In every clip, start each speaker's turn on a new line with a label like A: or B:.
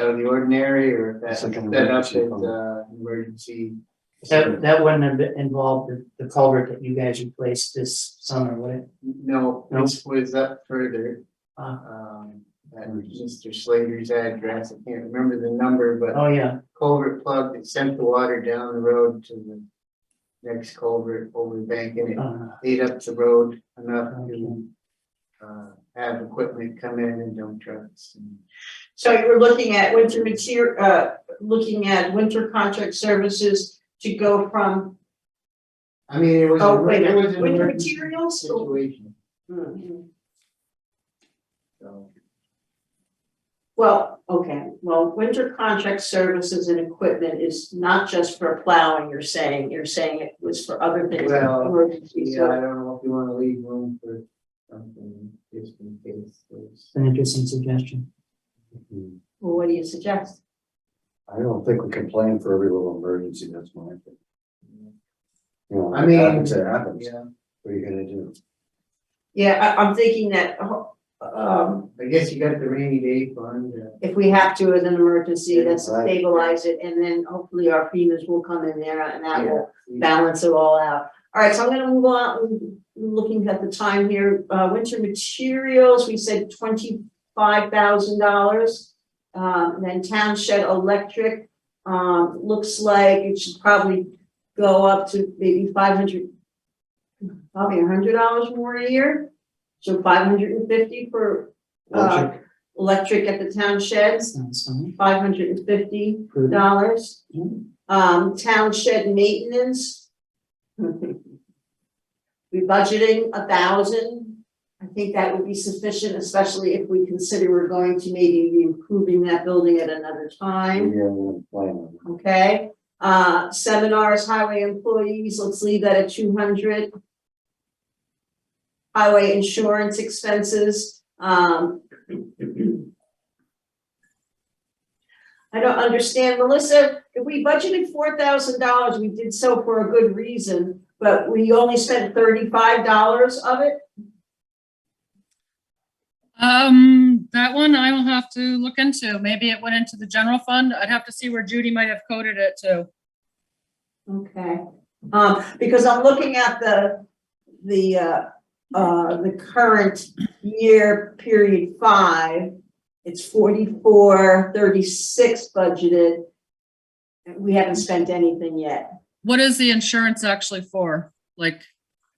A: out of the ordinary or if that,
B: It's like an
A: that
B: emergency
A: update,
B: fund.
A: uh, emergency.
C: That, that wouldn't have been- involved the- the culvert that you guys replaced this summer, would it?
A: No,
C: No.
A: this was up further,
C: Uh,
A: um, at Mr. Slater's address, I can't remember the number, but
C: oh, yeah,
A: culvert plug that sent the water down the road to the. Next culvert over the bank and it
C: uh,
B: Ah.
A: ate up the road enough
C: okay.
A: to, uh, have equipment come in and dump trucks and.
D: So you were looking at winter material, uh, looking at winter contract services to go from,
A: I mean, it was,
D: oh,
A: a-
D: wait,
A: it was an
D: winter
A: emergency
D: materials? or-
A: situation, Mm-hmm.
D: Hmm.
A: so.
D: Well, okay, well, winter contract services and equipment is not just for plowing, you're saying, you're saying it was for other things. like
A: Well,
D: emergency
A: Yeah,
D: service.
A: I don't know if you wanna leave room for something, just in case, there's-
C: It's an interesting suggestion.
B: Hmm.
D: Well, what do you suggest?
B: I don't think we can plan for every little emergency, that's my thing. You know,
A: I
B: it
A: mean,
B: happens, it happens,
A: yeah,
B: what are you gonna do?
D: Yeah, I, I'm thinking that, oh, um,
A: I guess you got the rainy day fund, uh,
D: if we have to as an emergency, that's
B: Right.
D: stabilize it, and then hopefully our FEMA's will come in there and that will
A: yeah. we-
D: balance it all out. All right, so I'm gonna move on, looking at the time here, uh, winter materials, we said twenty-five thousand dollars. Um, then town shed electric, um, looks like it should probably go up to maybe five hundred, probably hundred dollars more a year. So five hundred and fifty for, uh,
B: Electric?
D: electric at the town sheds,
C: Sounds fine.
D: five hundred and fifty
C: Prudent.
D: dollars.
C: Yeah.
D: Um, town shed maintenance. We budgeting a thousand. I think that would be sufficient, especially if we consider we're going to maybe be improving that building at another
B: Yeah,
D: time,
B: we're planning.
D: okay? Uh, seminars, highway employees, let's leave that at two hundred. Highway insurance expenses, um. I don't understand, Melissa, if we budgeted four thousand dollars, we did so for a good reason, but we only spent thirty-five dollars of it?
E: Um, that one I will have to look into. Maybe it went into the general fund. I'd have to see where Judy might have coded it to.
D: Okay, um, because I'm looking at the, the, uh, uh, the current year period five. It's forty-four, thirty-six budgeted. We haven't spent anything yet.
E: What is the insurance actually for? Like,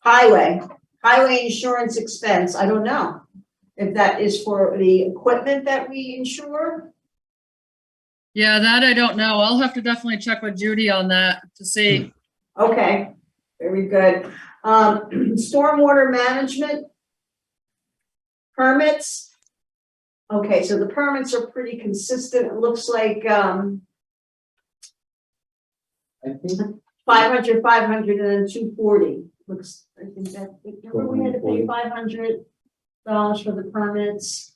D: Highway, highway insurance expense, I don't know. If that is for the equipment that we insure,
E: yeah, that I don't know. I'll have to definitely check with Judy on that to see.
D: okay, very good. Um, stormwater management. Permits. Okay, so the permits are pretty consistent. It looks like, um,
A: I think,
D: 500, 500, and then two forty, looks, I think that, remember we had to pay
B: 440.
D: five hundred dollars for the permits?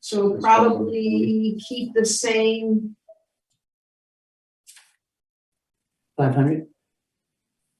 D: So
B: That's
D: probably keep the same,
C: Five hundred?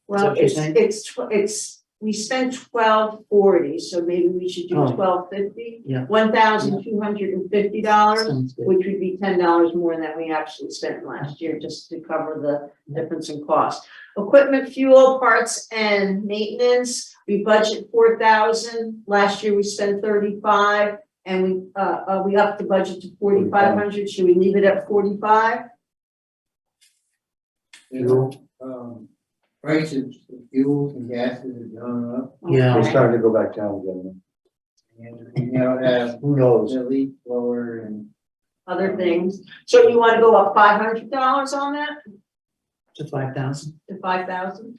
D: well,
C: what you're
D: it's,
C: saying?
D: it's, tw- it's, we spent twelve forty, so maybe we should do
C: Oh.
D: twelve fifty?
C: Yeah.
D: One thousand two hundred and fifty dollars,
C: Sounds good.
D: which would be ten dollars more than we actually spent last year, just to cover the difference in cost. Equipment, fuel, parts and maintenance, we budget four thousand, last year we spent thirty-five. And we, uh, uh, we upped the budget to forty-five hundred, should we leave it at forty-five?
A: you know, um, prices of fuels and gases have gone up.
C: Yeah.
B: We're starting to go back down again,
A: And we now have
B: who knows?
A: the leak blower and.
D: Other things, so you wanna go up five hundred dollars on that,
C: To five thousand.
D: to five thousand?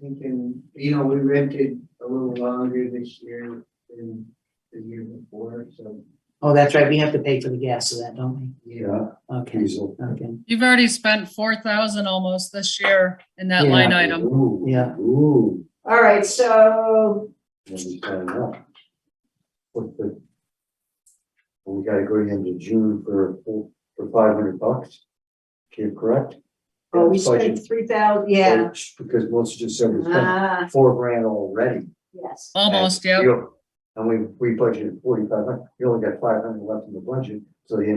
A: Thinking, you know, we rented a little longer this year than the year before, so.
C: Oh, that's right, we have to pay for the gas of that, don't we?
B: Yeah,
C: Okay,
B: diesel.
C: okay,
E: You've already spent four thousand almost this year in that
C: Yeah.
E: line item.
B: Ooh,
C: Yeah.
B: Ooh,
D: All right, so,
B: when we sign up. What the? We gotta go into June for, for five hundred bucks, Can't correct?
D: oh, we
B: That's budget. Oh,
D: spent three thousand, yeah,
B: Because most just said we spent
D: ah,
B: four grand already.
D: yes.
E: Almost,
B: And
E: yeah.
B: you- And we, we budgeted forty-five hundred, you only got five hundred left in the budget, so the